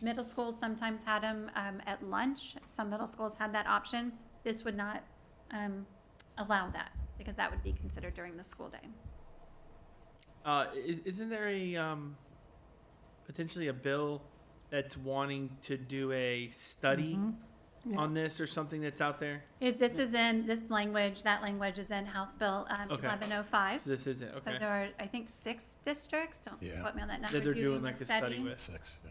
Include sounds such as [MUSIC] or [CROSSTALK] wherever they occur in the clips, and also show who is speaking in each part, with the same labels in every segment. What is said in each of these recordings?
Speaker 1: Middle schools sometimes had them um, at lunch. Some middle schools had that option. This would not um, allow that because that would be considered during the school day.
Speaker 2: Uh, is, isn't there a um, potentially a bill that's wanting to do a study
Speaker 3: Yeah.
Speaker 2: on this or something that's out there?
Speaker 1: Is this is in this language? That language is in House Bill um,
Speaker 2: Okay.
Speaker 1: 1105.
Speaker 2: So this isn't
Speaker 1: So
Speaker 2: okay.
Speaker 1: there are, I think, six districts. Don't
Speaker 4: Yeah.
Speaker 1: quote me on that number.
Speaker 2: that they're
Speaker 1: doing
Speaker 2: doing like
Speaker 1: the
Speaker 2: a study. with.
Speaker 4: Six. yeah.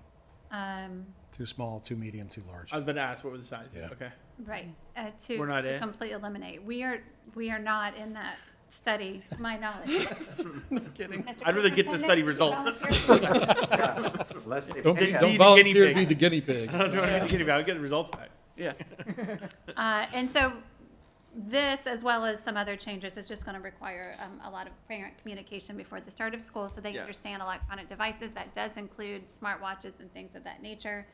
Speaker 1: Um,
Speaker 4: Too small, too medium, too large.
Speaker 2: I
Speaker 5: Uh,
Speaker 2: was about to ask what were the sizes.
Speaker 4: Yeah.
Speaker 2: Okay.
Speaker 1: right, uh, to,
Speaker 2: We're not
Speaker 1: to
Speaker 2: in?
Speaker 1: completely eliminate. We are, we are not in that study, to my
Speaker 4: [LAUGHS]
Speaker 1: knowledge.
Speaker 4: kidding.
Speaker 1: Mr.
Speaker 2: I'd rather get the
Speaker 1: Superintendent,
Speaker 2: study
Speaker 1: do you
Speaker 2: result.
Speaker 1: volunteer?
Speaker 6: Unless they
Speaker 3: Don't,
Speaker 2: They
Speaker 6: pick up.
Speaker 2: get- be the
Speaker 3: don't
Speaker 2: guinea
Speaker 3: volunteer to
Speaker 2: pig.
Speaker 3: be the guinea pig.
Speaker 2: [LAUGHS] I was going to get I'll get the results back.
Speaker 7: Yeah.
Speaker 1: Uh, and so this, as well as some other changes, is just gonna require, um, a lot of parent communication before the start of school, so they
Speaker 2: Yeah.
Speaker 1: understand electronic devices. That does include smartwatches and things of that nature.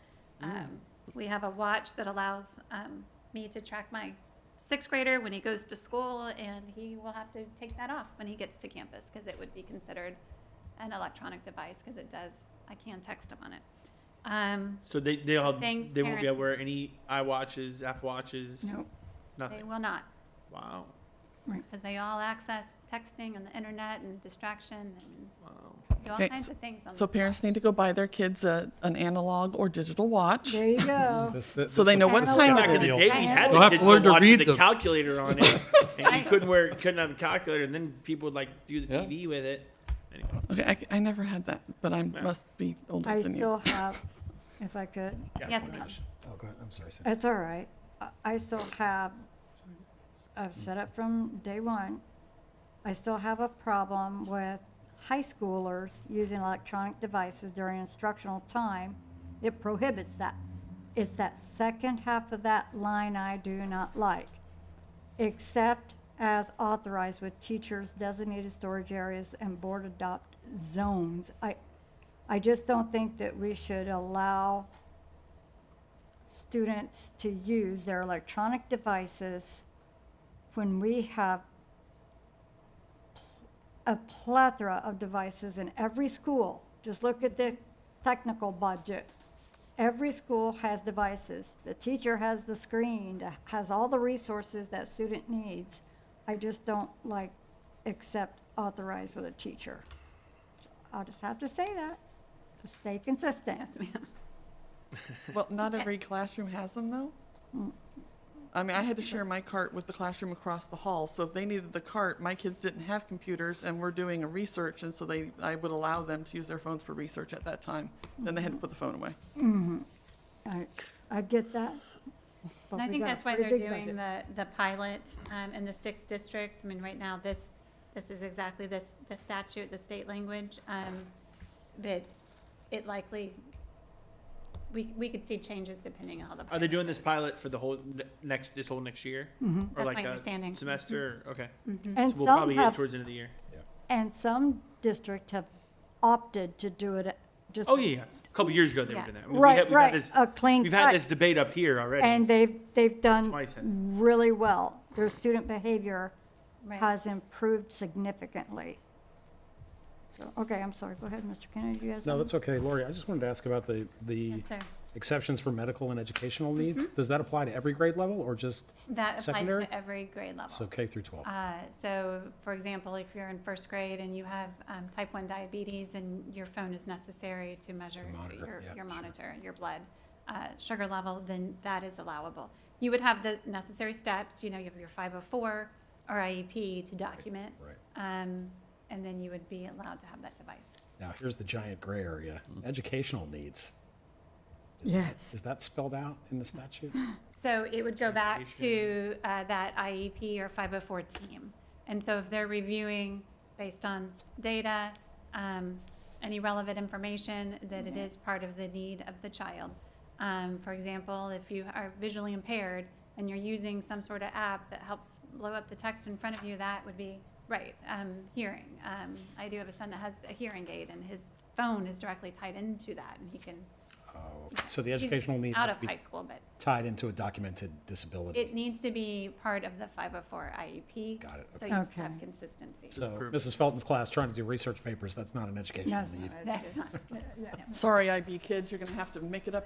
Speaker 1: Um, we have a watch that allows, um, me to track my sixth grader when he goes to school, and he will have to take that off when he gets to campus, because it would be considered an electronic device, because it does, I can text him on it. Um,
Speaker 2: So they they'll have,
Speaker 1: Things
Speaker 2: they won't be
Speaker 1: parents-
Speaker 2: able to wear any iWatches, Apple watches,
Speaker 3: No,
Speaker 2: nothing.
Speaker 1: they will not.
Speaker 2: Wow.
Speaker 1: because they all access texting and the internet and distraction and
Speaker 2: Wow.
Speaker 1: do all
Speaker 7: Okay,
Speaker 1: kinds of things on
Speaker 7: So
Speaker 1: this
Speaker 7: parents need to go buy their kids a, an analog or digital watch,
Speaker 8: There you
Speaker 4: [LAUGHS]
Speaker 8: go.
Speaker 4: This- this-
Speaker 7: so they
Speaker 4: this-
Speaker 7: know what
Speaker 8: Back
Speaker 7: time
Speaker 2: Back in the
Speaker 7: it is.
Speaker 2: day, we had
Speaker 3: They'll
Speaker 2: the
Speaker 3: have to
Speaker 2: digital
Speaker 3: learn to
Speaker 2: watch
Speaker 3: read
Speaker 2: with the
Speaker 3: them.
Speaker 2: calculator
Speaker 1: [LAUGHS]
Speaker 2: on it, and you
Speaker 1: Right.
Speaker 2: couldn't wear couldn't have the calculator, and then people would like do the
Speaker 3: Yeah.
Speaker 2: TV with it. Anyway.
Speaker 7: Okay, I, c- I never had that, but I must be older
Speaker 8: I
Speaker 7: than you.
Speaker 8: still have, if I could,
Speaker 2: Yeah,
Speaker 1: Yes,
Speaker 2: pretty
Speaker 1: ma'am.
Speaker 2: much.
Speaker 4: Oh, go ahead. I'm sorry. Cindy.
Speaker 8: it's all right. I- I still have, I've said it from day one, I still have a problem with high schoolers using electronic devices during instructional time. It prohibits that. It's that second half of that line I do not like. Except as authorized with teachers designated storage areas and board adopt zones. I, I just don't think that we should allow students to use their electronic devices when we have a plethora of devices in every school. Just look at the technical budget. Every school has devices. The teacher has the screen, that has all the resources that student needs. I just don't like accept authorized with a teacher. I'll just have to say that, to stay consistent. [LAUGHS]
Speaker 1: Yes, ma'am.
Speaker 7: Well, not every classroom has them though.
Speaker 8: Mm.
Speaker 7: I mean, I had to share my cart with the classroom across the hall, so if they needed the cart, my kids didn't have computers and were doing a research, and so they, I would allow them to use their phones for research at that time. Then they
Speaker 8: Mm-hmm.
Speaker 7: had to put the phone away.
Speaker 8: I, I get that. but
Speaker 1: And I
Speaker 8: we
Speaker 1: think
Speaker 8: got a
Speaker 1: that's why
Speaker 8: pretty
Speaker 1: they're
Speaker 8: big
Speaker 1: doing
Speaker 8: budget.
Speaker 1: the, the pilot um, in the six districts. I mean, right now, this, this is exactly this, the statute, the state language. um, But it likely, we, we could see changes depending on how the.
Speaker 2: Are they doing
Speaker 1: goes.
Speaker 2: this pilot for the whole ne- next this whole next year, or
Speaker 1: Mm-hmm. That's
Speaker 2: like
Speaker 1: my
Speaker 2: a
Speaker 1: understanding. Mm-hmm.
Speaker 2: semester? Okay,
Speaker 8: And
Speaker 2: so we'll
Speaker 8: some
Speaker 2: probably get it
Speaker 8: have,
Speaker 2: towards the end of the year.
Speaker 8: and some district have opted to do it just.
Speaker 2: Oh yeah, yeah. a couple years ago they
Speaker 1: Yeah.
Speaker 2: were doing that.
Speaker 8: Right,
Speaker 2: had-
Speaker 8: right,
Speaker 2: Had this,
Speaker 8: a clean
Speaker 2: We've had
Speaker 8: cut.
Speaker 2: this debate up here already.
Speaker 8: And they've, they've done
Speaker 2: Twice it.
Speaker 8: really well. Their student behavior
Speaker 1: Right.
Speaker 8: has improved significantly. So, okay, I'm sorry. Go ahead, Mr. Kennedy, you guys.
Speaker 5: No,
Speaker 8: have-
Speaker 5: that's okay. Lori, I just wanted to ask about the, the
Speaker 1: Yes, sir. Mm-hmm.
Speaker 5: exceptions for medical and educational needs. Does that apply to every grade level or just,
Speaker 1: That applies
Speaker 5: Secondary?
Speaker 1: to every grade level.
Speaker 5: so K through 12?
Speaker 1: Uh, So, for example, if you're in first grade and you have um, type 1 diabetes and your phone is necessary to measure
Speaker 4: monitor,
Speaker 1: your,
Speaker 4: yeah,
Speaker 1: your
Speaker 4: sure.
Speaker 1: monitor, your blood uh, sugar level, then that is allowable. You would have the necessary steps, you know, you have your 504 or IEP to document.
Speaker 4: Right.
Speaker 1: um, And then you would be allowed to have that device.
Speaker 4: Now, here's the giant gray area, educational needs.
Speaker 3: Yes.
Speaker 4: Is that spelled out in
Speaker 1: [GASPS]
Speaker 4: the statute?
Speaker 5: Oh,
Speaker 1: So it would go back to uh, that IEP or 504 team. And so if they're reviewing based on data, um, any relevant information, that it is part of the need of the child. Um, For example, if you are visually impaired and you're using some sort of app that helps blow up the text in front of you, that would be, right, um, hearing. Um, I do have a son that has a hearing aid and his phone is directly tied into that and he can,
Speaker 4: Oh,
Speaker 5: So the
Speaker 1: he's
Speaker 5: educational need
Speaker 1: out
Speaker 5: has
Speaker 1: of
Speaker 5: to be
Speaker 1: high school, but
Speaker 4: Tied into a documented disability.
Speaker 1: It needs to be part of the 504 IEP.
Speaker 4: Got it,
Speaker 1: E So you just have
Speaker 8: Okay.
Speaker 1: consistency.
Speaker 4: So
Speaker 5: Mrs. Felton's class trying to do research papers, that's not an educational
Speaker 8: No, it's
Speaker 4: need.
Speaker 8: not.
Speaker 1: That's not,
Speaker 7: Sorry, IB kids, you're gonna have to make it up